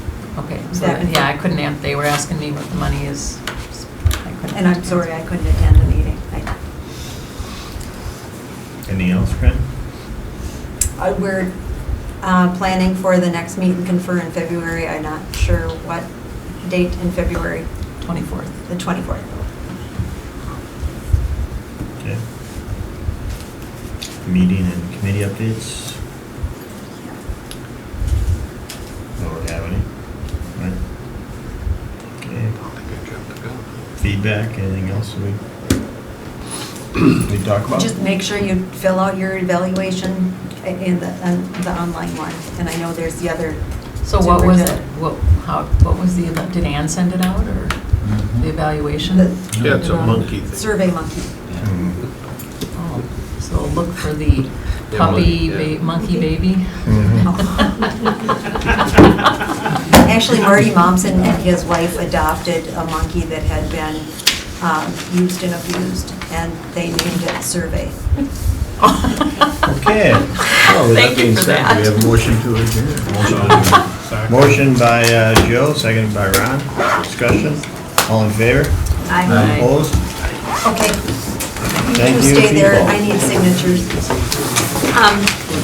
Okay, so, that- That- yeah, I couldn't, an- they were asking me what the money is. I couldn't- And I'm sorry I couldn't attend the meeting. I- Anything else, Fran? I- We're uh, planning for the next meet and confer in February. I'm not sure what date in February, 24th. the 24th. Okay. Meeting and committee updates? Don't have any? Right. Okay. Feedback, anything else we, we talk about? Just make sure you fill out your evaluation i- in the, on the online one. And I know there's the other. So what was it, superintendent. what, how, what was the, eva- did Ann send it out, or the Mhm. evaluation? The- Mm-hmm. Yeah, it's a monkey thing. Survey Monkey. Mhm. Oh, So look for the Yeah, puppy, monkey, yeah. ba- monkey baby? Actually, Marty Momsen and his wife adopted a monkey that had been um, used and abused, and they named it Survey. Okay. Well, with Thank you being for said, that. We have a motion to adjourn. Motion by uh, Joe, seconded by Ron. Discussion, all in favor? I, Aye. Opposed? okay. Thank You you, stay there, people. I need signatures. Um,